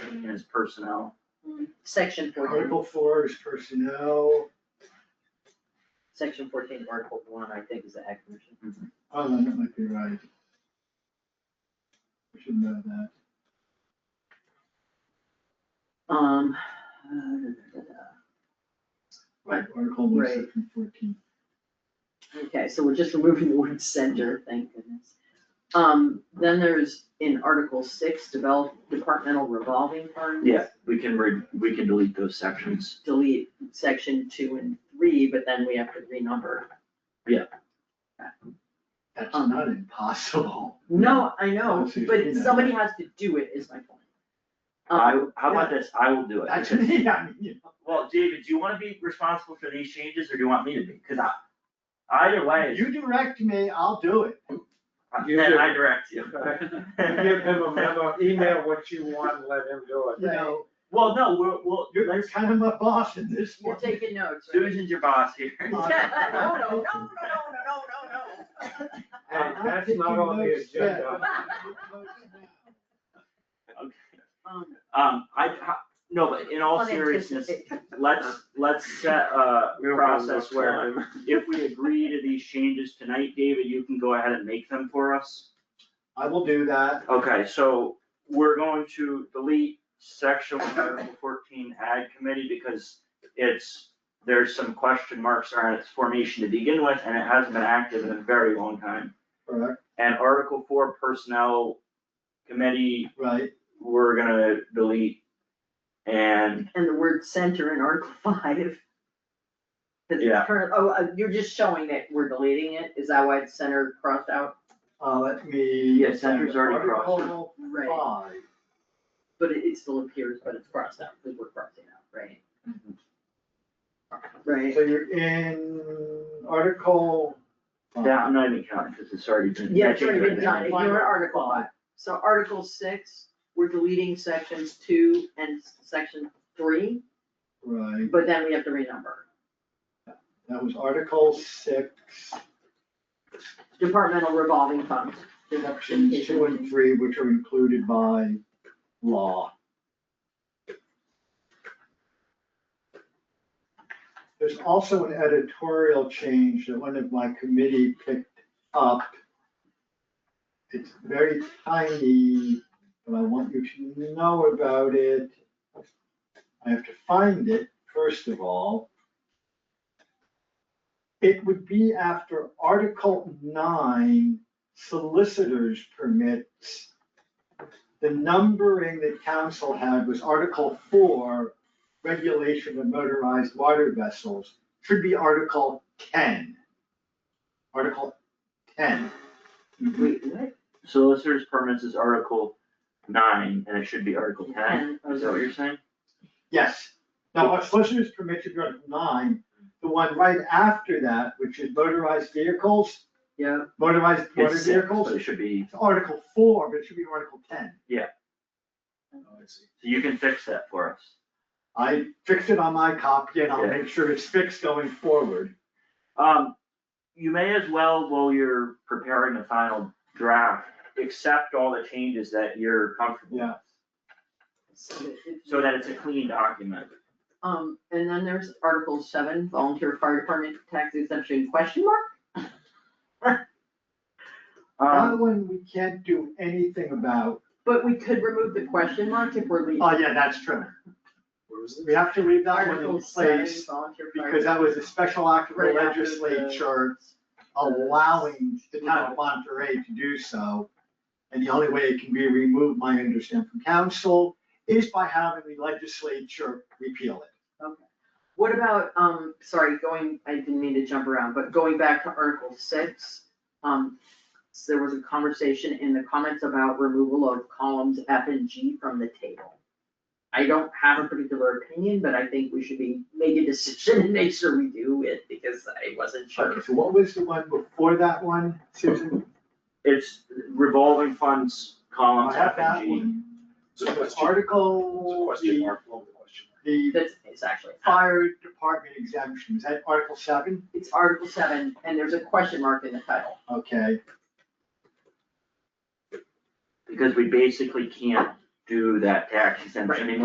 is personnel. Section fourteen, Article four is personnel, section fourteen, article one, I think is the heck version. oh, that might be right. We should know that. Um. uh, da, da, da, da. Right, Article one, Right. section fourteen. Okay, so we're just removing the word center, thank goodness. Um, then there's in Article six, develop departmental revolving funds. Yeah, we can re, we can delete those sections. Delete section two and three, but then we have to renumber. That's Um. not impossible. No, I know, Let's see if we but can- somebody has to do it, is my point. I, Um, how about this, I will do it. That's me, I mean, you know. Well, David, do you wanna be responsible for these changes or do you want me to be? Cause I, either way, You direct me, I'll do it. You then do. I direct you. Give him a memo, email what you want, let him do You it. know, Well, no, we're, we'll, you're, you're kind of my boss in this You're one. taking notes, right? Susan's your boss here. No, no, no, no, no, no, no, Hey, that's not on the agenda. Okay. no. Um, Um, I, I- no, but in all seriousness, unanticipated. let's, let's set a We don't have enough process where time. if we agree to these changes tonight, David, you can go ahead and make them for us. I will do that. Okay, so we're going to delete section one, article fourteen, ag committee, because it's, there's some question marks around its formation to begin with, and it hasn't been active in a very long time. Correct, And article four personnel committee, right. we're gonna delete. And and the word center in Article five. Cause it's Yeah. current- oh, uh, you're just showing that we're deleting it, is that why it's center crossed out? Uh, let me. Yeah, center's already crossed. Article Right. five. But it, it still appears, but it's crossed out, because we're crossing out, right? Right, So you're in article. five. Yeah, I'm not even counting, because it's already been. yeah, it's already been Right. done, ignore Article five. So Article six, we're deleting sections two and s- section three, Right, but then we have to renumber. that was article six, Departmental revolving funds. sections two and three, which are included by law. There's also an editorial change that one of my committee picked up. It's very tiny, but I want you to know about it. I have to find it, first of all. It would be after Article nine, solicitor's permits. The numbering that council had was Article four, regulation of motorized water vessels, should be Article ten. Article ten. Wait, what? Solicitors permits is article nine, and it should be article ten, And- is that what you're saying? Yes. Now, a solicitor's permit should be Article nine. The one right after that, which is motorized vehicles, Yeah, motorized motor It's six, vehicles, but it should be, it's Article four, but it should be Article ten. Yeah. Oh, I see. so you can fix that for us. I fixed it on my copy and I'll Yeah. make sure it's fixed going forward. Um, you may as well, while you're preparing the final draft, accept all the changes that you're comfortable with. Yeah. So that it's a clean document. Um, and then there's Article seven, volunteer fire department tax exemption question mark? Um, Uh-huh. That one we can't do anything about. But we could remove the question mark if we're leaving. Oh, yeah, that's true. We have to leave that one in Article seven, place volunteer fire. because that was a special act of the Right after the- legislature allowing the town of Monterey to do so. And the only way it can be removed, my understanding from council, is by having the legislature repeal it. What about, um, sorry, going, I didn't mean to jump around, but going back to Article six, um, so there was a conversation in the comments about removal of columns F and G from the table. I don't have a particular opinion, but I think we should be, make a decision and make sure we do it because I wasn't sure. Okay, so what was the one before that one, Susan? it's revolving funds, columns I have F that and G. one. It's a question, it's a Article, question the, mark, well, the question mark. the That's, it's actually. fire department exemption, is that Article seven? It's Article seven, and there's a question mark in the title. Okay, Because we basically can't do that tax exemption Right. anymore.